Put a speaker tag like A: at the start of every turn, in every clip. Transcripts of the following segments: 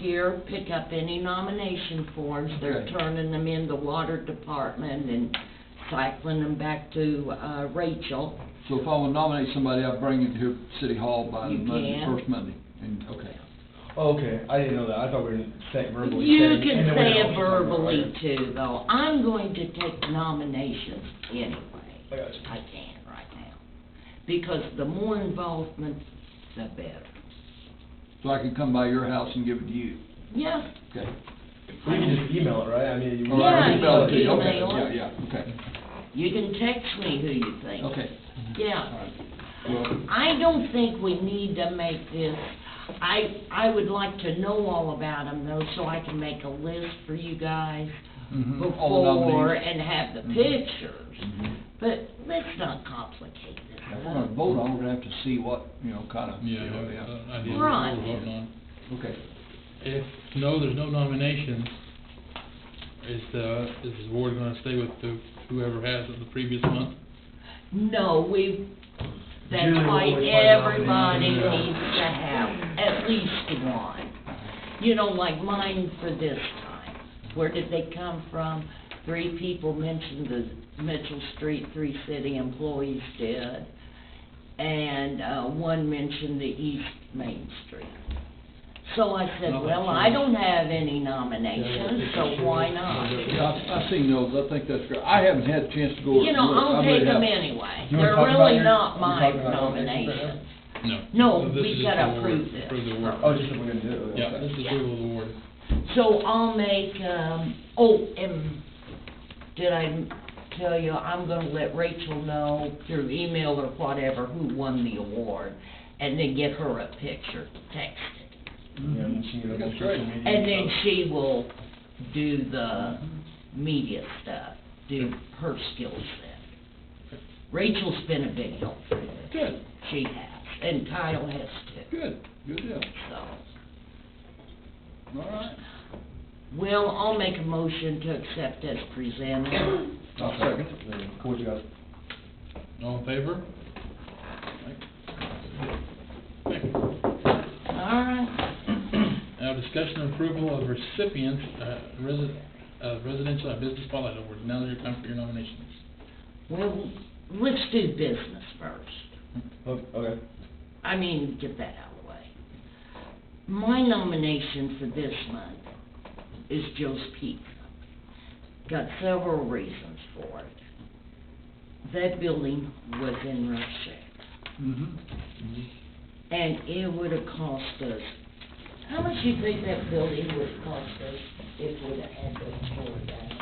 A: here, pick up any nomination forms, they're
B: Okay.
A: turning them in the water department and cycling them back to, uh, Rachel.
B: So if I want to nominate somebody, I bring it to City Hall by the
A: You
B: Monday,
A: can.
B: first Monday, and, okay.
C: Okay, I didn't know that, I thought we were saying verbally.
A: You
C: saying-
A: can
C: and then we
A: say
C: don't-
A: it verbally too, though, I'm going to take nominations anyway.
C: I got you.
A: I can right now, because the more involvement, the better.
B: So I can come by your house and give it to you,
A: Yeah,
B: okay?
C: We can just email it, right? I mean. you-
B: All right,
A: Yeah,
B: we spell it to you.
A: email
B: Okay,
A: it.
B: Yeah, yeah, okay,
A: you can text me who you think.
B: okay, all
A: Yeah.
B: right. Well,
A: I don't think we need to make this, I, I would like to know all about them though, so I can make a list for you guys
D: Mm-hmm.
B: mhm, all the
A: before
B: nominees.
A: and have the
B: Mhm.
A: pictures.
B: Mhm.
A: But let's not complicate this
B: If we're gonna
A: up.
B: vote on, it, we're gonna have to see what, you know, kind of.
D: Yeah, uh, I didn't know
A: Right.
D: what we're voting on.
B: Okay,
D: If, no, there's no nominations, is the, is the board gonna stay with the, whoever has it the previous month?
A: No, we, that's
C: Generally,
A: why
C: we find out
A: everybody
C: in the-
A: needs to have at least one. You know, like mine for this time, where did they come from? Three people mentioned the Mitchell Street, three city employees did, and, uh, one mentioned the East Main Street. So I said,
D: No,
A: well,
D: sure.
A: I don't have any nominations, so why not?
B: yeah, I've, I've seen those, I think that's great, I haven't had a chance to go.
A: You know,
B: look. I
A: I'll
B: really
A: take them
B: haven't.
A: anyway.
C: You wanna
A: They're
C: talk about
A: really
C: your-
A: not
C: you
A: my
C: talk about nominations right now?
A: nominations.
D: No.
A: No,
D: This
A: we
D: is
A: gotta
D: the award,
A: approve this.
D: Approve the award.
C: Oh, just if we're gonna do it.
D: Yeah,
C: okay.
D: this is
A: Yeah.
D: approval of the award.
A: So I'll make, um, oh, and did I tell you, I'm gonna let Rachel know through email or whatever who won the award, and then get her a picture texted.
C: Yeah, and she can go
B: That's
C: to social
B: great.
C: media
A: And then
C: stuff.
A: she will do the media stuff, do her skill set. Rachel's been a big help for me.
B: Good,
A: She has, and Kyle has too,
B: good, good deal,
A: so.
B: all right,
A: Well, I'll make a motion to accept as presented.
B: I'll second it.
C: Then, Cool, with you guys.
D: All in favor? Thank you.
A: All right.
D: Now, discussion and approval of recipients, uh, resi- uh, residential and business spotlight awards. Now is your time for your nominations.
A: Well, let's do business first.
C: Oh, Okay.
A: I mean, get that out of the way. My nomination for this month is Joe's Pizza. Got several reasons for it. That building was in rough shape,
D: Mm-hmm.
B: Mhm.
E: Mm-hmm.
A: and it would have cost us, how much do you think that building would have cost us if we'd have had those torn down?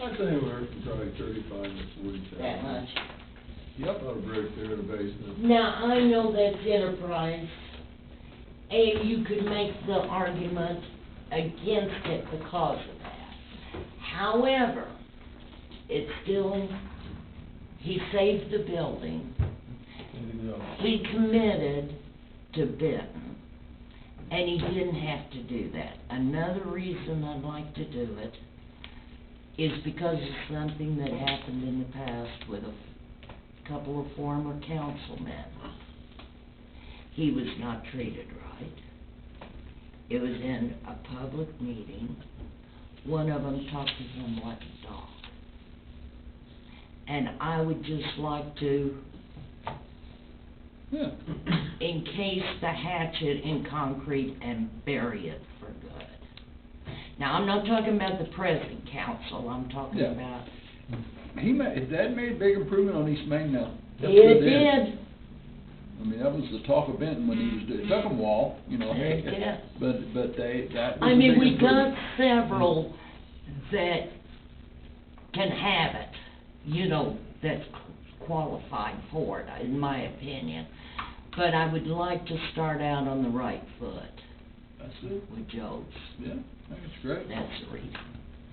E: I'd say we're probably thirty-five to forty thousand.
A: That much?
E: Yep, I'll break there in the basement.
A: Now, I know that's enterprise, and you could make the argument against it because of that. However, it's still, he saved the building,
C: Anything else?
A: he committed to Benton, and he didn't have to do that. Another reason I'd like to do it is because of something that happened in the past with a couple of former councilmen. He was not treated right. It was in a public meeting. One of them talked to him like a dog. And I would just like to
B: Yeah,
A: encase the hatchet in concrete and bury it for good. Now, I'm not talking about the present council, I'm talking
B: Yeah.
A: about,
B: he made, that made a big improvement on East Main now. That's
A: it
B: good then.
A: did,
B: I mean, that was the talk of Benton when he was, doing- it took 'em a while, you know.
A: It did.
B: But, but they, that. was
A: I
B: a
A: mean,
B: big
A: we got
B: improvement.
A: several that can have it, you know, that's qualified for it, in my opinion. But I would like to start out on the right foot
B: That's it,
A: with Joe's,
B: yeah, I think it's great.
A: that's the reason.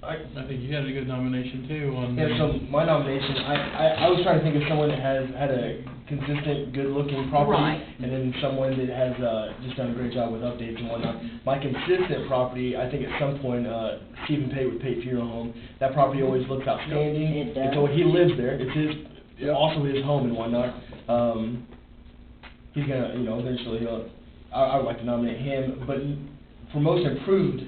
C: I,
D: I think you had a good nomination too on.
C: Yeah, so
D: the-
C: my nomination, I, I, I was trying to think of someone that has had a consistent, good-looking
A: Right.
C: property, and then someone that has, uh, just done a great job with updates and whatnot. My consistent property, I think at some point, uh, Stephen Pate with Pate Funeral Home, that property always looks outstanding.
A: It
C: And so
A: does.
C: he lives there, it's his,
B: Yep.
C: also his home and whatnot. uh, Um, he's gonna, you know, eventually, he'll, I, I would like to nominate him, but for most improved